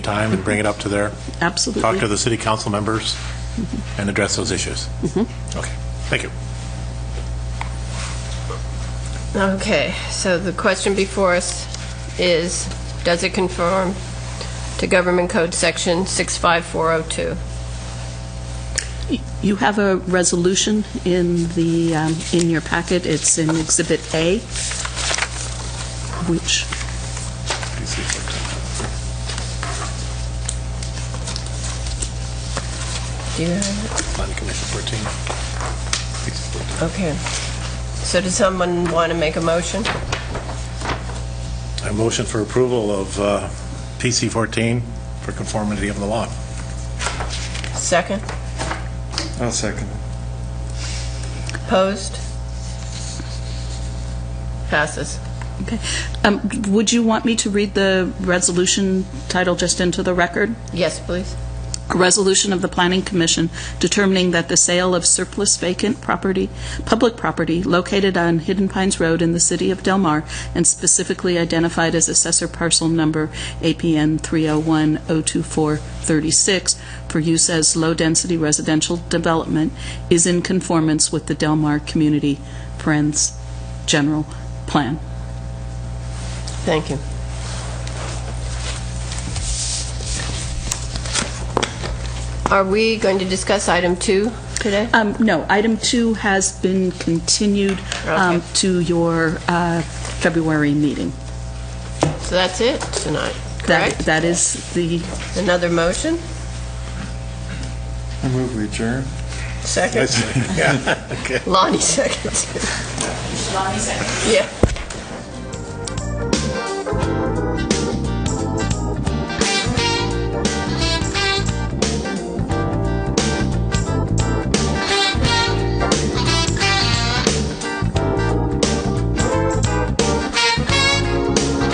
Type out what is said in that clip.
time and bring it up to their, Absolutely. talk to the city council members and address those issues. Okay, thank you. Okay, so the question before us is, does it conform to Government Code Section 65402? You have a resolution in the, um, in your packet. It's in Exhibit A, which, Do you have Planning Commission 14. 14. it? Okay. So does someone want to make a motion? I motion for approval of uh, PC 14 for conformity of the law. Second? I'll second Opposed? Passes. okay. Um, Would you want me to read the resolution title just into the record? Yes, please. A resolution of the Planning Commission determining that the sale of surplus vacant property, public property located on Hidden Pines Road in the city of Del Mar and specifically identified as assessor parcel number APN 301-02436 for use as low-density residential development is in conformance with the Del Mar Community Friends General Plan. Thank you. Are we going to discuss item two today? Um, No, item two has been continued um, Okay. to your uh, February meeting. So that's it tonight, That, correct? that is the, Another motion? it. I move we adjourn. Second? Lonnie seconds. Lonnie seconds. Yeah.